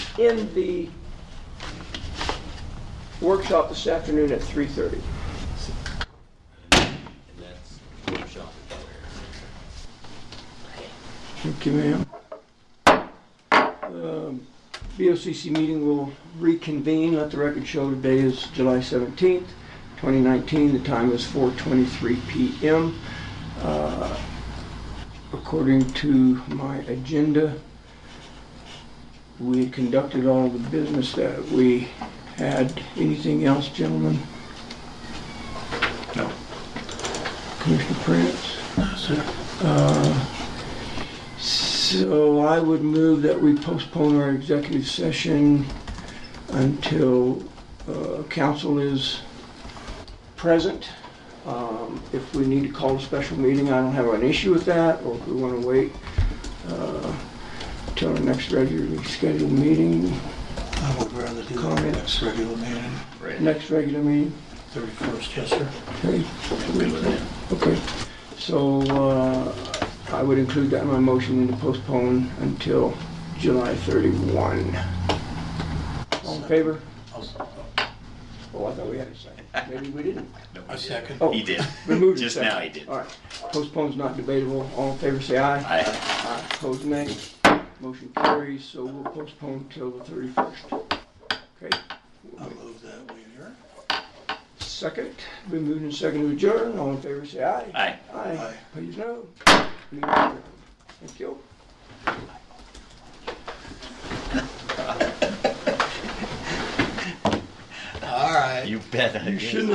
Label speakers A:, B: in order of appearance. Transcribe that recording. A: in the workshop this afternoon at 3:30.
B: And that's workshop at where?
A: Thank you, ma'am. Um, BOCC meeting will reconvene. Let the record show today is July 17th, 2019. The time is 4:23 PM. Uh, According to my agenda, we conducted all the business that we had. Anything else, gentlemen?
C: No.
A: Commissioner Prince? Uh, So I would move that we postpone our executive session until uh, council is present. Um, If we need to call a special meeting, I don't have an issue with that, or if we want to wait uh, till our next regularly scheduled meeting,
C: I would rather do the
A: Comments?
C: next regular meeting,
A: next regular meeting.
C: 31st, yes, sir.
A: Okay. Okay, so uh, I would include that in my motion to postpone until July 31. All in favor? Oh, I thought we had a second. Maybe we didn't.
C: I second.
A: Oh,
B: He did.
A: we moved to
B: Just
A: second.
B: now he did.
A: All right, postpone's not debatable. All in favor, say aye.
B: I,
A: Aye. Opposed, nay. Motion carries, so we'll postpone till the 31st. Okay,
C: I move that we adjourn.
A: second, we moved in second to adjourn. All in favor, say aye.
B: I.
A: Aye.
C: Aye.
A: Please no. Thank you.
C: All right.
B: You bet I did.
A: shouldn't